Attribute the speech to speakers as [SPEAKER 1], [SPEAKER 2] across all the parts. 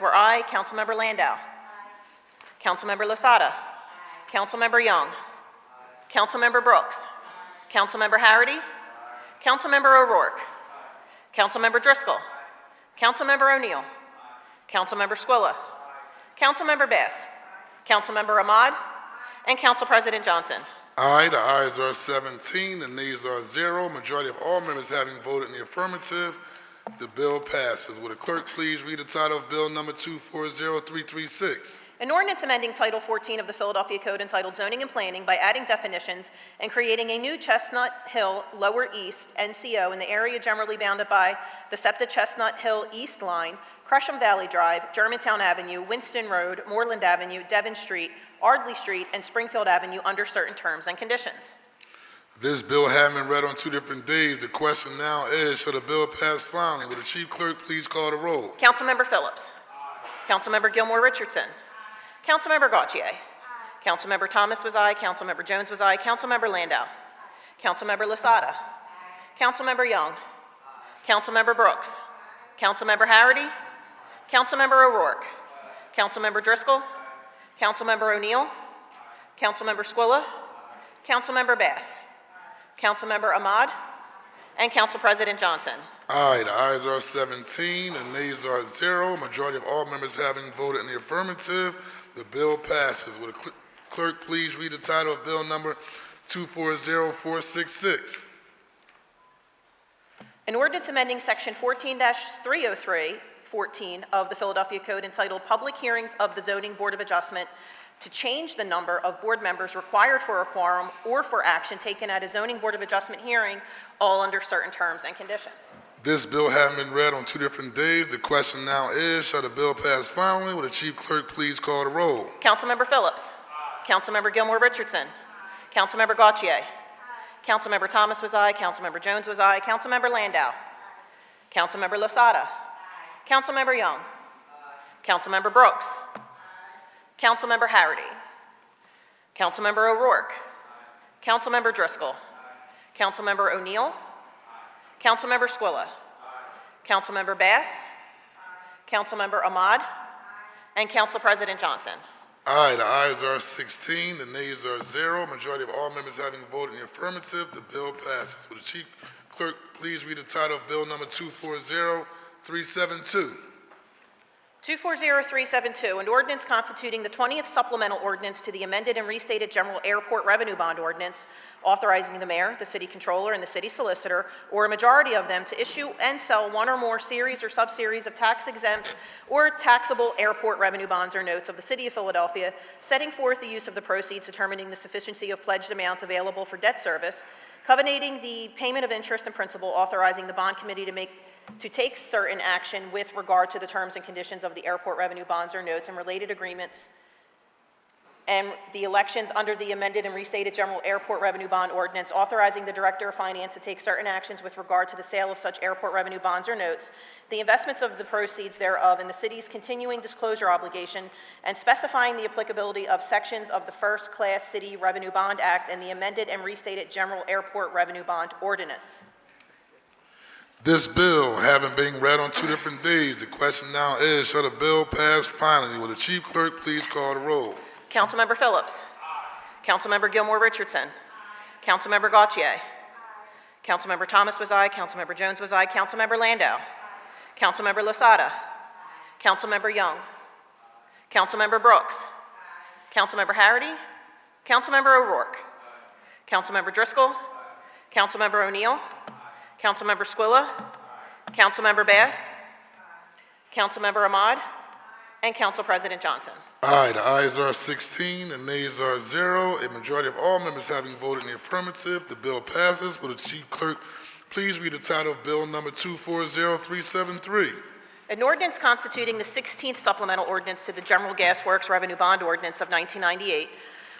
[SPEAKER 1] Member I, Councilmember Landau. Councilmember Losada. Councilmember Young. Councilmember Brooks. Councilmember Harity. Councilmember O'Rourke. Councilmember Driscoll. Councilmember O'Neill. Councilmember Squilla. Councilmember Bass. Councilmember Ahmad. And Council President Johnson.
[SPEAKER 2] Aye, the ayes are 17, the nays are zero. Majority of all members having voted in the affirmative, the bill passes. Would the clerk please read the title of Bill Number 240336?
[SPEAKER 1] An ordinance amending Title 14 of the Philadelphia Code entitled Zoning and Planning by adding definitions and creating a new Chestnut Hill Lower East NCO in the area generally bounded by the SEPTA Chestnut Hill East Line, Gresham Valley Drive, Germantown Avenue, Winston Road, Moreland Avenue, Devon Street, Ardley Street, and Springfield Avenue under certain terms and conditions.
[SPEAKER 2] This bill having been read on two different days, the question now is, shall the bill pass finally? Would the chief clerk please call the roll?
[SPEAKER 1] Councilmember Phillips. Councilmember Gilmore Richardson. Councilmember Gautier. Councilmember Thomas was aye, Councilmember Jones was aye, Councilmember Landau. Councilmember Lasada. Councilmember Young. Councilmember Brooks. Councilmember Harity. Councilmember O'Rourke. Councilmember Driscoll. Councilmember O'Neill. Councilmember Squilla. Councilmember Bass. Councilmember Ahmad. And Council President Johnson.
[SPEAKER 2] Aye, the ayes are 17, the nays are zero. Majority of all members having voted in the affirmative, the bill passes. Would the cl- clerk please read the title of Bill Number 240466?
[SPEAKER 1] An ordinance amending Section 14-303, 14 of the Philadelphia Code entitled Public Hearings of the Zoning Board of Adjustment to change the number of board members required for a quorum or for action taken at a zoning board of adjustment hearing, all under certain terms and conditions.
[SPEAKER 2] This bill having been read on two different days, the question now is, shall the bill pass finally? Will the chief clerk please call the roll?
[SPEAKER 1] Councilmember Phillips. Councilmember Gilmore Richardson. Councilmember Gautier. Councilmember Thomas was aye, Councilmember Jones was aye, Councilmember Landau. Councilmember Losada. Councilmember Young. Councilmember Brooks. Councilmember Harity. Councilmember O'Rourke. Councilmember Driscoll. Councilmember O'Neill. Councilmember Squilla. Councilmember Bass. Councilmember Ahmad. And Council President Johnson.
[SPEAKER 2] Aye, the ayes are 16, the nays are zero. Majority of all members having voted in the affirmative, the bill passes. Will the chief clerk please read the title of Bill Number 240372?
[SPEAKER 1] 240372, an ordinance constituting the 20th supplemental ordinance to the amended and restated General Airport Revenue Bond Ordinance, authorizing the mayor, the city controller, and the city solicitor, or a majority of them, to issue and sell one or more series or subseries of tax-exempt or taxable airport revenue bonds or notes of the city of Philadelphia, setting forth the use of the proceeds, determining the sufficiency of pledged amounts available for debt service, covenanting the payment of interest and principal, authorizing the bond committee to make to take certain action with regard to the terms and conditions of the airport revenue bonds or notes and related agreements, and the elections under the amended and restated general airport revenue bond ordinance, authorizing the director of finance to take certain actions with regard to the sale of such airport revenue bonds or notes, the investments of the proceeds thereof, and the city's continuing disclosure obligation, and specifying the applicability of sections of the First Class City Revenue Bond Act and the amended and restated general airport revenue bond ordinance.
[SPEAKER 2] This bill having been read on two different days, the question now is, shall the bill pass finally? Will the chief clerk please call the roll?
[SPEAKER 1] Councilmember Phillips. Councilmember Gilmore Richardson. Councilmember Gautier. Councilmember Thomas was aye, Councilmember Jones was aye, Councilmember Landau. Councilmember Losada. Councilmember Young. Councilmember Brooks. Councilmember Harity. Councilmember O'Rourke. Councilmember Driscoll. Councilmember O'Neill. Councilmember Squilla. Councilmember Bass. Councilmember Ahmad. And Council President Johnson.
[SPEAKER 2] Aye, the ayes are 16, the nays are zero. A majority of all members having voted in the affirmative, the bill passes. Will the chief clerk please read the title of Bill Number 240373?
[SPEAKER 1] An ordinance constituting the 16th supplemental ordinance to the General Gas Works Revenue Bond Ordinance of 1998,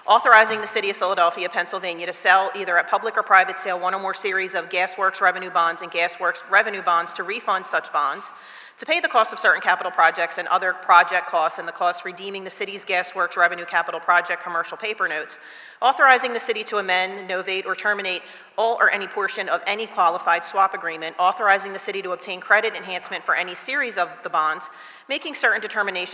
[SPEAKER 1] authorizing the City of Philadelphia, Pennsylvania to sell either at public or private sale one or more series of Gas Works revenue bonds and Gas Works revenue bonds to refund such bonds, to pay the cost of certain capital projects and other project costs and the cost redeeming the city's Gas Works revenue capital project commercial paper notes, authorizing the city to amend, novate, or terminate all or any portion of any qualified swap agreement, authorizing the city to obtain credit enhancement for any series of the bonds, making certain determinations